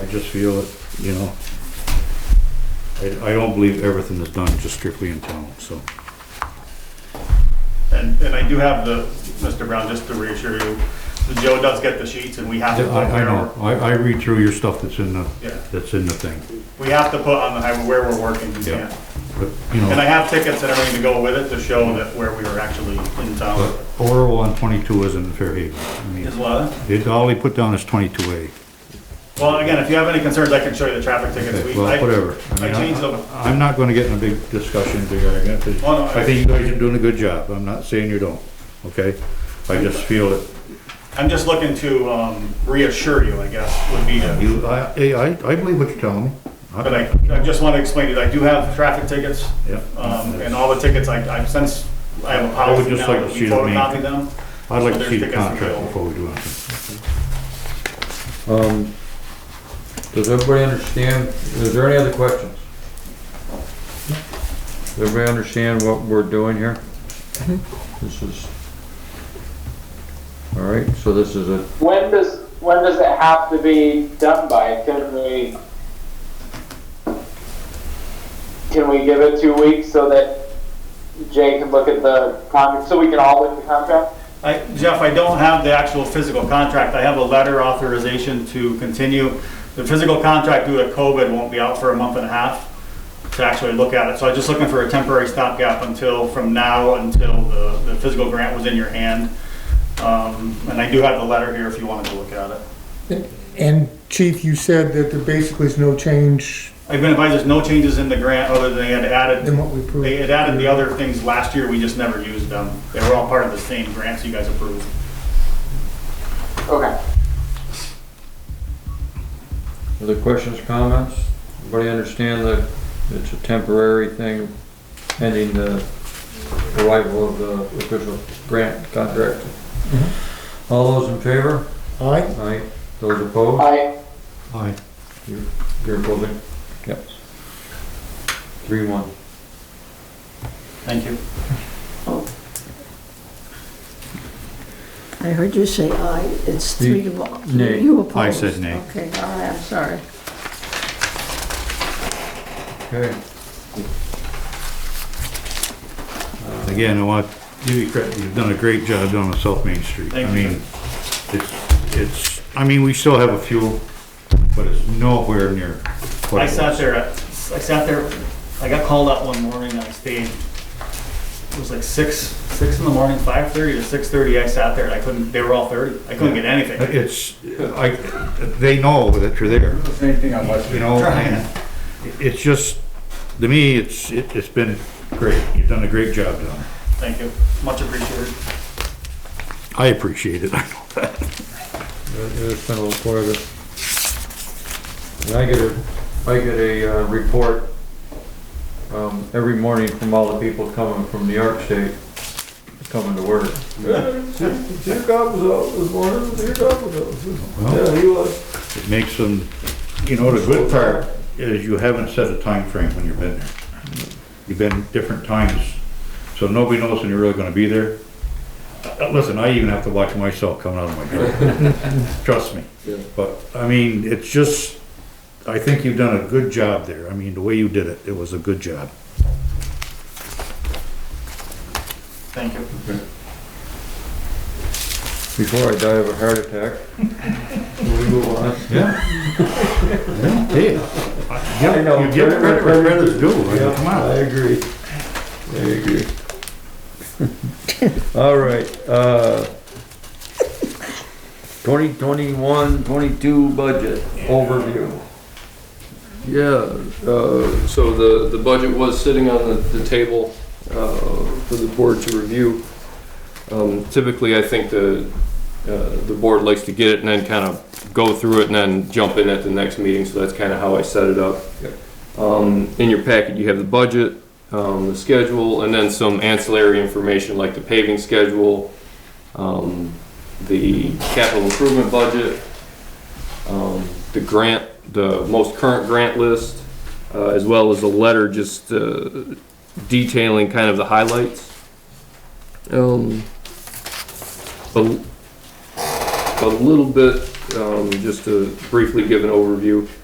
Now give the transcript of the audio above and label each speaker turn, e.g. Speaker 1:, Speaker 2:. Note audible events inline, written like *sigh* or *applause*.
Speaker 1: just feel that, you know, I, I don't believe everything is done just strictly in town, so.
Speaker 2: And, and I do have the, Mr. Brown, just to reassure you, Joe does get the sheets and we have
Speaker 1: I,
Speaker 2: to put
Speaker 1: I
Speaker 2: where,
Speaker 1: know, I, I read through your stuff that's in the,
Speaker 2: Yeah.
Speaker 1: that's in the thing,
Speaker 2: we have to put on the highway where we're working, you
Speaker 1: Yeah.
Speaker 2: can't.
Speaker 1: but, you
Speaker 2: And I
Speaker 1: know,
Speaker 2: have tickets and everything to go with it to show that where we were actually in
Speaker 1: but
Speaker 2: town.
Speaker 1: Oral on twenty-two isn't in Fairhaven. I
Speaker 2: Is
Speaker 1: mean,
Speaker 2: what?
Speaker 1: it, all he put down is twenty-two A.
Speaker 2: Well, again, if you have any concerns, I can show you the traffic tickets. We- I-
Speaker 1: Well, whatever. I
Speaker 2: I
Speaker 1: mean,
Speaker 2: changed them.
Speaker 1: I- I'm not gonna get in a big discussion together,
Speaker 2: Oh, no, I-
Speaker 1: I think you guys are doing a good job, I'm not saying you don't, okay? I just feel that
Speaker 2: I'm just looking to um, reassure you, I guess, would be, to-
Speaker 1: You, I, I, I believe what you're telling me. I-
Speaker 2: but I, I just want to explain to you, that I do have traffic tickets.
Speaker 1: Yeah.
Speaker 2: Um, and all the tickets, I, I've since, I have a
Speaker 1: I would
Speaker 2: policy
Speaker 1: just
Speaker 2: now
Speaker 1: like
Speaker 2: that
Speaker 1: to
Speaker 2: we
Speaker 1: see the main-
Speaker 2: photocopy them.
Speaker 1: I'd like to
Speaker 2: so
Speaker 1: see
Speaker 2: there's
Speaker 1: the
Speaker 2: tickets
Speaker 1: contract
Speaker 2: available.
Speaker 1: before we do anything.
Speaker 3: Um, does everybody understand, is there any other questions? Does everybody understand what we're doing here? This is, all right, so this is a,
Speaker 4: When does, when does it have to be done by? Can we, can we give it two weeks so that Jay can look at the contract, so we can all look at the contract?
Speaker 2: I, Jeff, I don't have the actual physical contract. I have a letter authorization to continue. The physical contract due to COVID won't be out for a month and a half to actually look at it. So I'm just looking for a temporary stopgap until, from now until the, the physical grant was in your hand. Um, and I do have the letter here if you wanted to look at it.
Speaker 5: And Chief, you said that there basically is no change
Speaker 2: I've been advised there's no changes in the grant other than they had
Speaker 5: in
Speaker 2: added,
Speaker 5: what we approved.
Speaker 2: they had added the other things last year. We just never used them. They were all part of the same grants you guys approved.
Speaker 4: Okay.
Speaker 3: other questions, comments? Everybody understand that it's a temporary thing pending the arrival of the official grant contract? All those in favor?
Speaker 5: Aye,
Speaker 3: Aye. Those opposed?
Speaker 4: I,
Speaker 1: Aye.
Speaker 3: You're opposing? Yep. Three, one.
Speaker 2: Thank you.
Speaker 6: I heard you say aye, it's three to one.
Speaker 3: Nay.
Speaker 6: You opposed.
Speaker 1: I said nay.
Speaker 6: Okay, all right, I'm sorry.
Speaker 3: Okay.
Speaker 1: Again, I want, to give you credit, you've done a great job down on South Main Street. I
Speaker 2: Thank you.
Speaker 1: mean, it's, it's, I mean, we still have a few, but it's nowhere near. what
Speaker 2: I
Speaker 1: it
Speaker 2: sat
Speaker 1: was.
Speaker 2: there, at- I sat there, I got called out one morning, I stayed, it was like six, six in the morning, five thirty to six thirty, I sat there and I couldn't, they were all thirty, I couldn't get anything.
Speaker 1: It's, I, they know that you're there,
Speaker 2: Same thing on
Speaker 1: you know, and it's just, to me, it's, it- it's been great. You've done a great job down there.
Speaker 2: Thank you, much appreciated.
Speaker 1: I appreciate it, *laughs* I know that.
Speaker 3: It's been a little quieter. And I get a, I get a, uh, report, um, every morning from all the people coming from New York State, coming to work.
Speaker 7: Your dog was out this morning, your dog was out.
Speaker 1: Well,
Speaker 7: Yeah, he was.
Speaker 1: It makes them, you know, the good part is you haven't set a time frame when you've been there. You've been different times, so nobody knows when you're really gonna be there. Uh, Listen, I even have to watch myself coming out of my door,
Speaker 7: *laughs*
Speaker 1: trust me. But, I mean, it's just, I think you've done a good job there. I mean, the way you did it, it was a good job.
Speaker 2: Thank you.
Speaker 3: Before I die of a heart *laughs* attack. Will we move on?
Speaker 1: Yeah. Hey,
Speaker 7: I know,
Speaker 1: you give credit where credit is due, I mean,
Speaker 7: Yeah,
Speaker 1: come
Speaker 7: I
Speaker 1: on.
Speaker 7: agree.
Speaker 3: I agree. *laughs* All right, uh, 2021, 22 budget overview.
Speaker 7: Yeah, uh, so the, the budget was sitting on the, the table, uh, for the board to review. Um, typically, I think the, uh, the board likes to get it and then kind of go through it and then jump in at the next meeting, so that's kind of how I set it up.
Speaker 3: Yep.
Speaker 7: Um, in your packet, you have the budget, um, the schedule, and then some ancillary information like the paving schedule, um, the capital improvement budget, um, the grant, the most current grant list, uh, as well as a letter just uh, detailing kind of the highlights. Um, a, a little bit, um, just to briefly give an overview.